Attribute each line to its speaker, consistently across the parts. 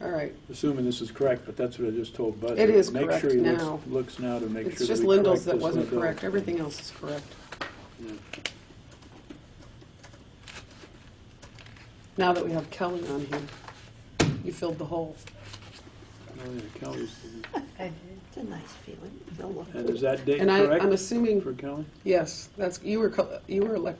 Speaker 1: All right,
Speaker 2: assuming this is correct, but that's what I just told Bud.
Speaker 1: It is
Speaker 2: Make sure
Speaker 1: correct
Speaker 2: he looks-
Speaker 1: now.
Speaker 2: looks now to make sure.
Speaker 1: it's just
Speaker 2: we correct
Speaker 1: Lindell's that
Speaker 2: this one
Speaker 1: wasn't
Speaker 2: goes.
Speaker 1: correct, everything else is correct.
Speaker 2: Yeah.
Speaker 1: Now that we have Kelly on here, you filled the hole.
Speaker 2: Oh, yeah, Kelly's-
Speaker 3: It's a nice feeling. They'll look
Speaker 2: And is that date
Speaker 1: And I, I'm
Speaker 2: correct for
Speaker 1: assuming,
Speaker 2: Kelly?
Speaker 1: yes, that's, you were, co- you were elect,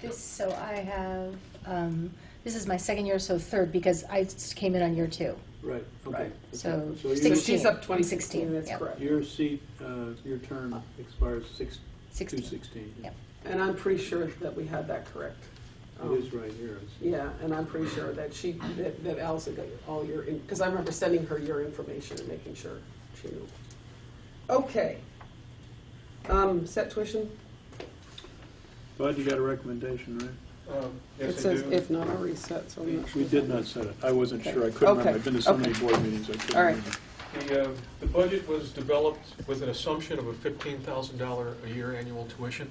Speaker 4: This, so I have, um, this is my second year, so third, because I s- came in on year two.
Speaker 2: Right, okay.
Speaker 1: Right.
Speaker 4: So
Speaker 2: So you-
Speaker 4: sixteen.
Speaker 1: she's up
Speaker 4: I'm
Speaker 1: 2016, that's
Speaker 4: yeah.
Speaker 1: correct.
Speaker 2: Your seat, uh, your term expires six, two
Speaker 4: Sixteen.
Speaker 2: sixteen.
Speaker 4: Yep.
Speaker 1: and I'm pretty sure that we had that correct. Um,
Speaker 2: It is right here. It's-
Speaker 1: Yeah, and I'm pretty sure that she, that that Allison got all your, because I remember sending her your information and making sure she knew. Okay. Um, set tuition?
Speaker 2: Bud, you got a recommendation, right?
Speaker 5: Um,
Speaker 1: It
Speaker 5: Yes, I
Speaker 1: says
Speaker 5: do.
Speaker 1: if not, I'll reset, so I'm not sure.
Speaker 2: We did not set it. I wasn't
Speaker 1: Okay.
Speaker 2: sure. I couldn't remember.
Speaker 1: Okay.
Speaker 2: I've been to so many
Speaker 1: Okay.
Speaker 2: board meetings, I couldn't
Speaker 1: All right.
Speaker 2: remember.
Speaker 5: The, uh, the budget was developed with an assumption of a $15,000 a year annual tuition,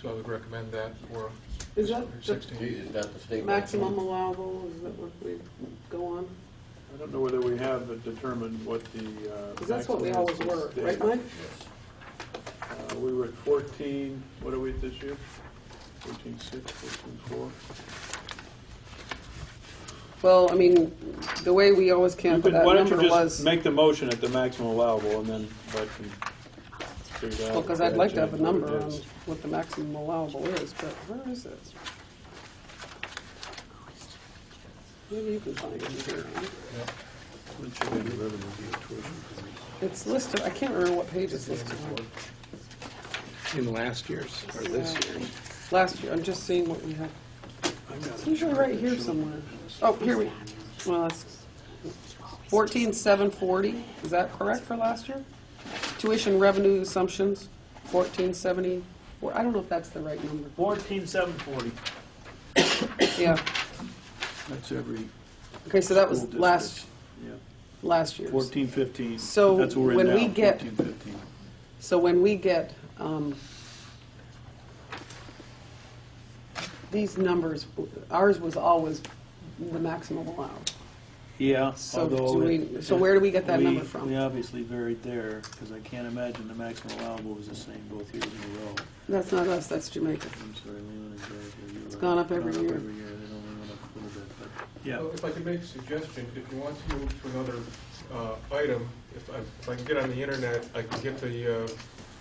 Speaker 5: so I would recommend that for
Speaker 1: Is that the
Speaker 5: 16.
Speaker 6: that the state?
Speaker 1: maximum allowable, is that what we go on?
Speaker 2: I don't know whether we have determined what the. uh,
Speaker 1: Because that's what we
Speaker 2: maximum
Speaker 1: always
Speaker 2: is
Speaker 1: were,
Speaker 2: this
Speaker 1: right,
Speaker 2: day.
Speaker 1: Mike?
Speaker 2: Uh, We were at 14, what are we this year? 14.6, 14.4?
Speaker 1: Well, I mean, the way we always came
Speaker 2: You
Speaker 1: up with
Speaker 2: could-
Speaker 1: that
Speaker 2: Why don't
Speaker 1: number
Speaker 2: you just
Speaker 1: was,
Speaker 2: make the motion at the maximum allowable, and then Bud can figure it out.
Speaker 1: well, because I'd like to have a
Speaker 2: Yeah,
Speaker 1: number
Speaker 2: it
Speaker 1: on
Speaker 2: is.
Speaker 1: what the maximum allowable is, but where is it? Maybe you can find it here.
Speaker 2: It should be the revenue, the tuition.
Speaker 1: It's listed, I can't remember what page it's listed on.
Speaker 7: in last year's or this year's.
Speaker 1: Last year, I'm just seeing what we have.
Speaker 2: I got
Speaker 1: It's
Speaker 2: it.
Speaker 1: usually right here somewhere. Oh, here we, well, that's fourteen seven forty, is that correct for last year? Tuition revenue assumptions, fourteen seventy, or, I don't know if that's the right number.
Speaker 8: Fourteen seven forty.
Speaker 1: Yeah,
Speaker 2: That's every
Speaker 1: okay, so that was
Speaker 2: School
Speaker 1: last, last year's.
Speaker 2: 14, 15.
Speaker 1: So
Speaker 2: That's what we're in
Speaker 1: when
Speaker 2: now,
Speaker 1: we get-
Speaker 2: 14, 15.
Speaker 1: So when we get um, these numbers, ours was always the maximum allowed.
Speaker 9: Yeah,
Speaker 1: So
Speaker 9: although.
Speaker 1: do
Speaker 9: it-
Speaker 1: we- so where do we get that
Speaker 9: we-
Speaker 1: number from?
Speaker 9: We obviously varied there, because I can't imagine the maximum allowable was the same both years in a row.
Speaker 1: That's not us, that's Jamaica.
Speaker 9: I'm sorry, Leland is right here. You're right.
Speaker 1: gone up every year.
Speaker 9: every year, they only went up a little bit, but,
Speaker 5: Well,
Speaker 9: yeah.
Speaker 5: If I could make a suggestion, if you want to move to another uh, item, if I, if I can get on the internet, I can get the uh,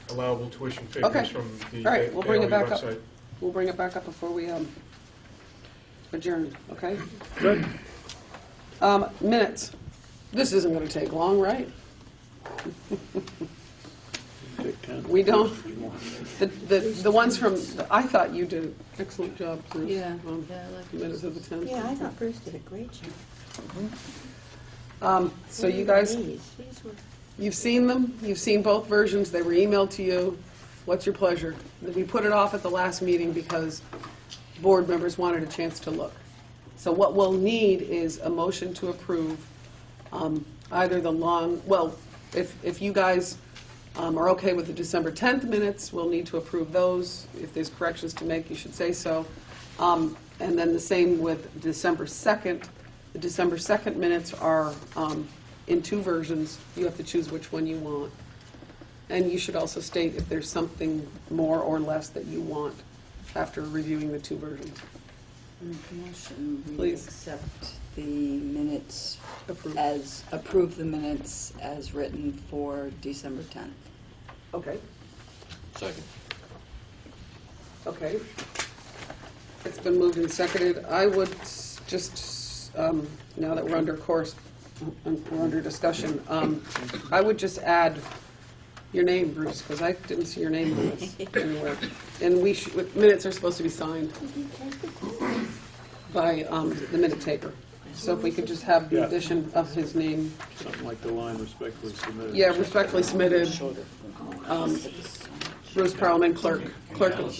Speaker 5: allowable tuition
Speaker 1: Okay.
Speaker 5: figures from the
Speaker 1: All right, we'll bring it
Speaker 5: AOE
Speaker 1: back up.
Speaker 5: website.
Speaker 1: We'll bring it back up before we um, adjourn, okay?
Speaker 2: Good.
Speaker 1: Um, Minutes. This isn't going to take long, right?
Speaker 2: Take 10.
Speaker 1: We don't, the the the ones from, I thought you did an excellent job, Bruce.
Speaker 4: Yeah,
Speaker 1: on
Speaker 4: yeah, I like
Speaker 1: Minutes of the 10th.
Speaker 3: Yeah, I thought Bruce did a great job.
Speaker 1: Um, So you guys,
Speaker 3: These, these were
Speaker 1: You've seen them, you've seen both versions, they were emailed to you. What's your pleasure? We put it off at the last meeting because board members wanted a chance to look. So what we'll need is a motion to approve um, either the long, well, if, if you guys um, are okay with the December 10th minutes, we'll need to approve those. If there's corrections to make, you should say so. Um, And then the same with December 2nd. The December 2nd minutes are um, in two versions. You have to choose which one you want. And you should also state if there's something more or less that you want after reviewing the two versions.
Speaker 10: Mm, Motion, we
Speaker 1: Please.
Speaker 10: accept the minutes
Speaker 1: Approved.
Speaker 10: as, approve the minutes as written for December 10th.
Speaker 1: Okay,
Speaker 6: Second.
Speaker 1: okay. It's been moved and seconded. I would s- just, um, now that we're under course, um, we're under discussion, um, I would just add your name, Bruce, because I didn't see your name on this anywhere. And we, sh- minutes are supposed to be signed by um, the minute taker. So if we could just have the
Speaker 2: Yeah.
Speaker 1: addition of his name,
Speaker 2: Something like the line respectfully submitted.
Speaker 1: yeah, respectfully submitted, um, Bruce Parliament Clerk, Clerk of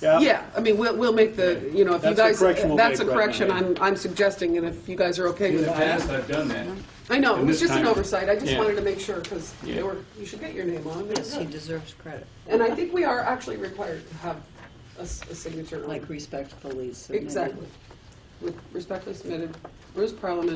Speaker 1: Yeah, I mean, we'll, we'll make the, you know, if you
Speaker 2: That's the
Speaker 1: guys,
Speaker 2: correction we'll
Speaker 1: that's a
Speaker 2: make right
Speaker 1: correction
Speaker 2: now.
Speaker 1: I'm, I'm suggesting, and if you guys are okay
Speaker 11: In
Speaker 1: with
Speaker 11: the past,
Speaker 1: that.
Speaker 11: I've done that.
Speaker 1: I know, it
Speaker 11: and
Speaker 1: was
Speaker 11: this
Speaker 1: just an
Speaker 11: time-
Speaker 1: oversight, I just
Speaker 11: Yeah.
Speaker 1: wanted to make sure, because
Speaker 11: Yeah.
Speaker 1: you were, you should get your name on
Speaker 10: Yes, he
Speaker 1: it.
Speaker 10: deserves credit,
Speaker 1: And I think we are actually required to have a, s- a signature on
Speaker 10: like
Speaker 1: it.
Speaker 10: respectfully submitted.
Speaker 1: Exactly. With Respectfully submitted, Bruce Parliament